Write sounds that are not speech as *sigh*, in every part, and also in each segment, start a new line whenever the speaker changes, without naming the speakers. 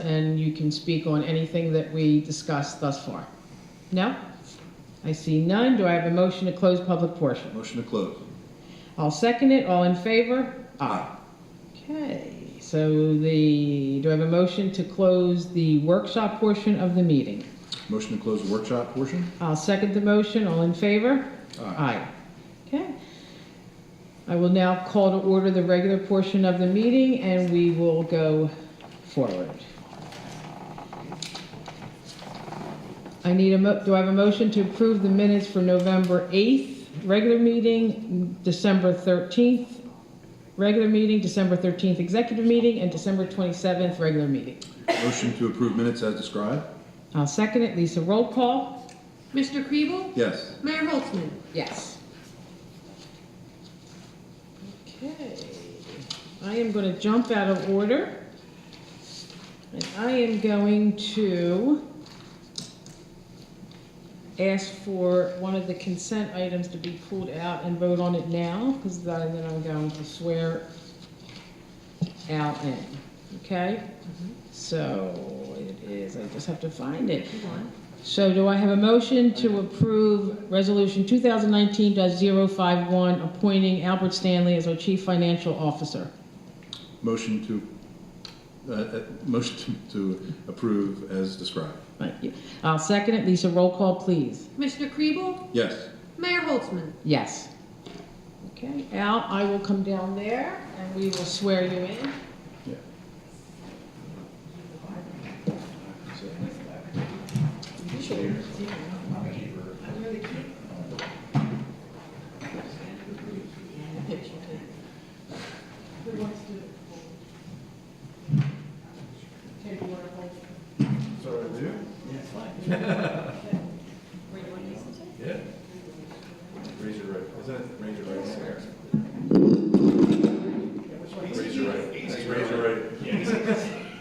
and you can speak on anything that we discussed thus far. No? I see none. Do I have a motion to close public portion?
Motion to close.
I'll second it. All in favor? Okay, so the, do I have a motion to close the workshop portion of the meeting?
Motion to close the workshop portion?
I'll second the motion. All in favor? Aye. Okay. I will now call to order the regular portion of the meeting, and we will go forward. I need a, mo- do I have a motion to approve the minutes for November 8th, regular meeting, December 13th, regular meeting, December 13th, executive meeting, and December 27th, regular meeting?
Motion to approve minutes as described?
I'll second it. Lisa, roll call.
Mr. Kriebel?
Yes.
Mayor Holtzman?
Yes. Okay, I am going to jump out of order. And I am going to ask for one of the consent items to be pulled out and vote on it now, because then I'm going to swear Al in, okay? So it is, I just have to find it. So do I have a motion to approve Resolution 2019-051, appointing Albert Stanley as our Chief Financial Officer?
Motion to, uh, uh, motion to- to approve as described?
Thank you. I'll second it. Lisa, roll call, please.
Mr. Kriebel?
Yes.
Mayor Holtzman?
Yes. Okay, Al, I will come down there, and we will swear you in.
Yeah.
Sorry, do? Yeah, fine. Yeah. Raise your right, isn't it, raise your right hand? Raise your right, That's raise your right.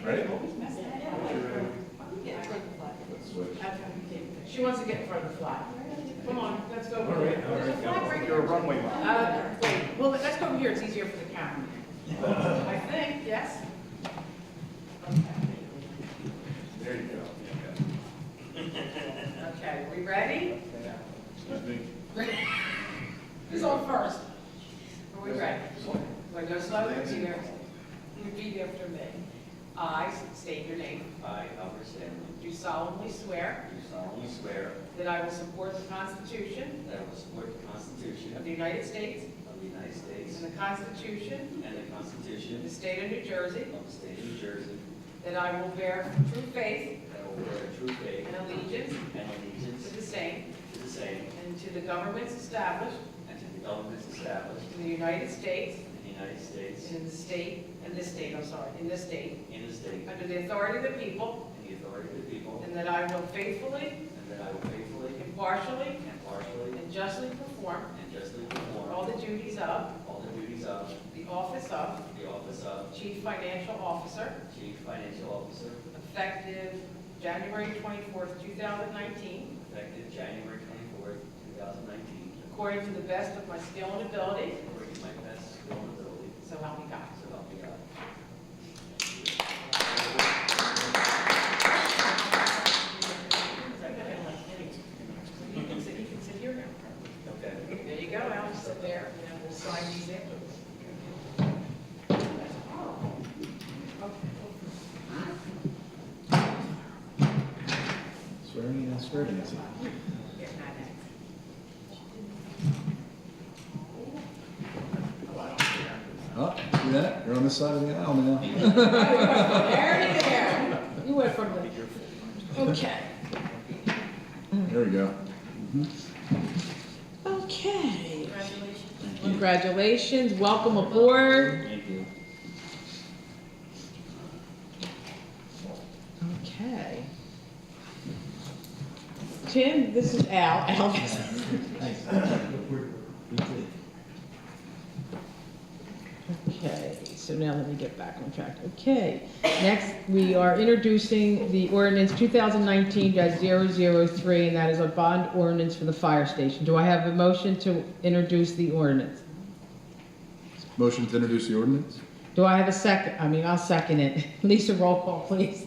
Right? Let's switch.
She wants to get in front of the flag. Come on, let's go.
All right, all right. You're a runway model.
Uh, wait, well, let's go over here, it's easier for the
*laughs*
camera. I think, yes?
There you go.
Okay, we ready?
Excuse me.
Who's on first? Are we ready? Want to go slow? You know, Repeat after me. I state your name.
I, Albert Stanley,
Do solemnly swear
do solemnly swear
that I will support the Constitution
that I will support the Constitution
of the United States
of the United States
and the Constitution
and the
of the
Constitution
State of New Jersey,
of the State of New Jersey,
that I will bear true faith
that I will bear true faith
and allegiance
and allegiance
to the same
to the same
and to the governments established
and to the governments established
in the United States
in the United States
and in the state, in this state, I'm sorry, in this state,
in the state
under the authority of the people,
and the authority of the people,
and that I will faithfully,
and that I will faithfully,
impartially,
impartially,
and justly perform
and justly
all
perform
the duties of
all the duties of
the office of
the office of
Chief Financial Officer,
Chief Financial Officer
effective January 24th, 2019,
effective January twenty-fourth, two thousand nineteen,
according to the best of my skill and ability,
according to my best skill and ability,
so help me God.
so help me God.
You can sit, you can sit here now.
Okay.
There you go, Al, just sit there, and then we'll sign these in. Oh.
Swearing in, swearing in. Oh, see that? You're on this side of the aisle now.
There, there. You went from the, okay.
There we go.
Okay. Congratulations, welcome aboard.
Thank you.
Okay. Tim, this is Al, Al. Okay, so now let me get back on track. Okay, next, we are introducing the ordinance 2019-003, and that is a bond ordinance for the fire station. Do I have a motion to introduce the ordinance?
Motion to introduce the ordinance?
*laughs* Do I have a second? I mean, I'll second it. Lisa, roll call, please.